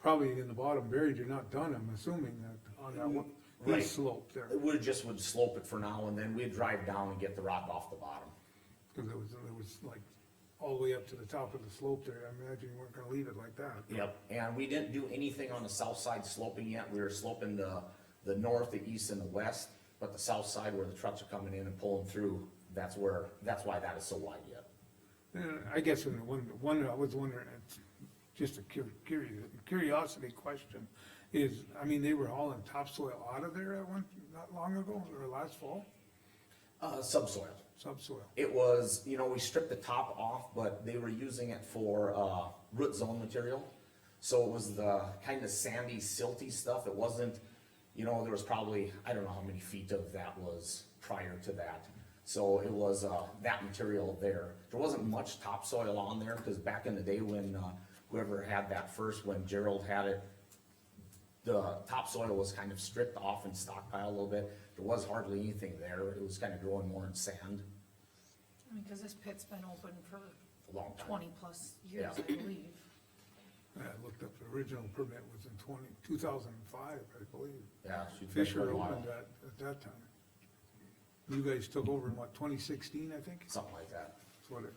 probably in the bottom buried, you're not done, I'm assuming, that on that one, Right. this slope there, It would, just would slope it for now, and then we'd drive down and get the rock off the bottom. cause it was, it was like all the way up to the top of the slope there, I imagine you weren't gonna leave it like that. Yep, and we didn't do anything on the south side sloping yet, we were sloping the, the north, the east, and the west, but the south side where the trucks are coming in and pulling through, that's where, that's why that is so wide yet. And Uh, I guess in the one, one I was wondering, it's just a cur- curious, curiosity question, is, I mean, they were hauling topsoil out of there at one, not long ago, or last fall, Uh, subsoil, subsoil. it was, you know, we stripped the top off, but they were using it for, uh, root zone material. So it was the kind of sandy, silty stuff, it wasn't, you know, there was probably, I don't know how many feet of that was prior to that. So it was, uh, that material there, there wasn't much topsoil on there, cause back in the day when, uh, whoever had that first, when Gerald had it, the topsoil was kind of stripped off and stockpiled a little bit, there was hardly anything there, it was kind of growing more in sand. I mean, cause this pit's been open for a long time. twenty plus years, Yeah. I believe. I looked up, the original permit was in twenty, two thousand and five, I believe. Yeah, it's been Fisher quite a while. opened that, at that time. You guys took over in what, twenty sixteen, I think? Something like that. That's what it,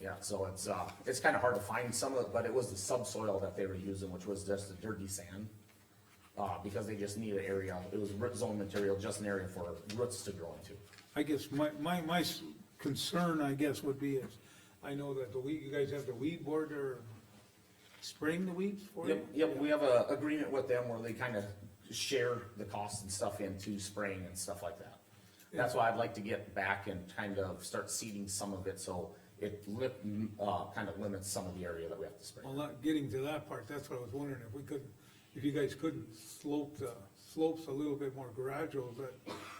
Yeah, so it's, uh, it's kinda hard to find some of it, but it was the subsoil that they were using, which was just the dirty sand. Uh, because they just needed area, it was root zone material, just an area for roots to grow into. I guess my, my, my s- concern, I guess, would be is, I know that the weed, you guys have the weed board or spraying the weeds for you? Yep, yep, we have a agreement with them where they kinda share the costs and stuff into spraying and stuff like that. That's why I'd like to get back and kind of start seeding some of it, so it li- uh, kinda limits some of the area that we have to spray. Well, not getting to that part, that's what I was wondering, if we couldn't, if you guys couldn't slope the, slopes a little bit more gradual, that,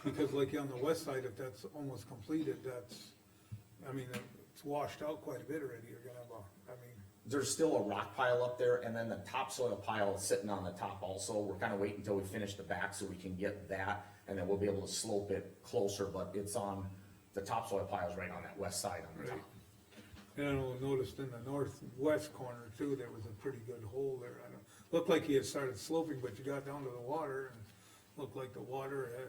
because like on the west side, if that's almost completed, that's, I mean, it's washed out quite a bit already, you're gonna have a, I mean, there's still a rock pile up there, and then the topsoil pile is sitting on the top also. We're kinda waiting until we finish the back so we can get that, and then we'll be able to slope it closer, but it's on, the topsoil pile's right on that west side on the top. Right. and I know- noticed in the northwest corner too, there was a pretty good hole there, I don't, looked like he had started sloping, but you got down to the water, and looked like the water had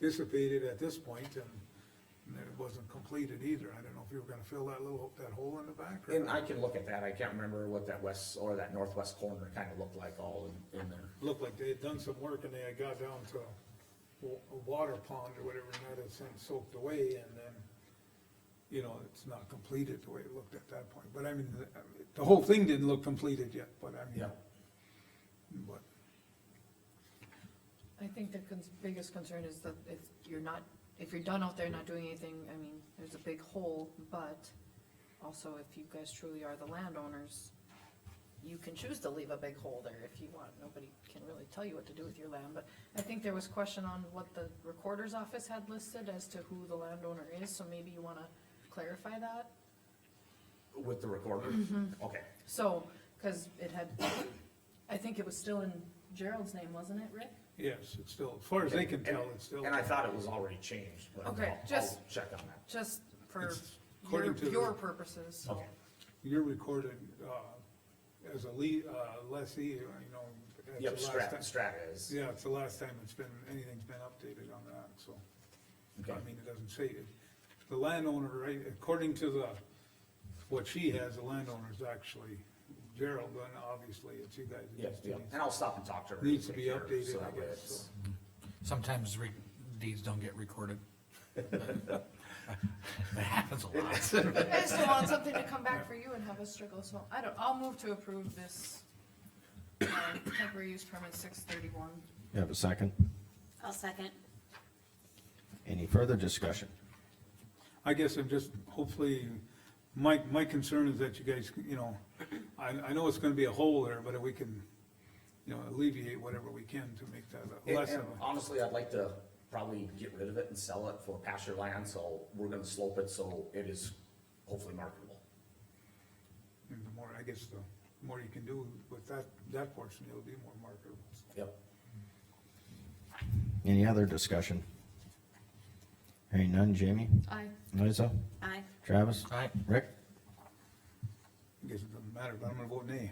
dissipated at this point, and it wasn't completed either, I don't know if you were gonna fill that little, that hole in the back or. And I can look at that, I can't remember what that west, or that northwest corner kinda looked like all in, in there. looked like they had done some work and they had got down to wa- a water pond or whatever, and that had since soaked away, and then, you know, it's not completed the way it looked at that point, but I mean, the- the whole thing didn't look completed yet, but I mean. Yeah. But, I think the cons- biggest concern is that if you're not, if you're done out there not doing anything, I mean, there's a big hole, but also if you guys truly are the landowners, you can choose to leave a big hole there if you want, nobody can really tell you what to do with your land, but I think there was question on what the recorder's office had listed as to who the landowner is, so maybe you wanna clarify that? With the recorder? Mm-hmm. Okay, So, cause it had, I think it was still in Gerald's name, wasn't it, Rick? yes, it's still, as far as they can tell, it's still. and I thought it was already changed, but I'll, Okay, just- I'll check on that. Just for It's according your, to the- your purposes. Oh, Okay, You're recorded, uh, as a lea, uh, lessee, you know. that's yep, the last Strat, time- Strata is, Yeah, it's the last time it's been, anything's been updated on that, so. Okay. I mean, it doesn't say it. The landowner, right, according to the, what she has, the landowner's actually Gerald, and obviously it's you guys. it yep, just yep, needs- and I'll stop and talk to her. and Needs to be take care of it, so updated, I that way guess, it's- so. Sometimes re- deeds don't get recorded. That happens a lot. I just don't want something to come back for you and have us struggle, so I don't, I'll move to approve this uh, temporary use permit six thirty-one. You have a second? I'll second. Any further discussion? I guess I'm just, hopefully, my, my concern is that you guys, you know, I, I know it's gonna be a hole there, but if we can, you know, alleviate whatever we can to make that a- And- less of and a. Honestly, I'd like to probably get rid of it and sell it for pasture land, so we're gonna slope it, so it is hopefully marketable. And the more, I guess, the more you can do with that, that portion, it'll be more marketable. Yep. Any other discussion? Hearing none, Jamie? Aye. Liza? Aye. Travis? Aye. Rick? guess it doesn't matter, but I'm gonna vote nay.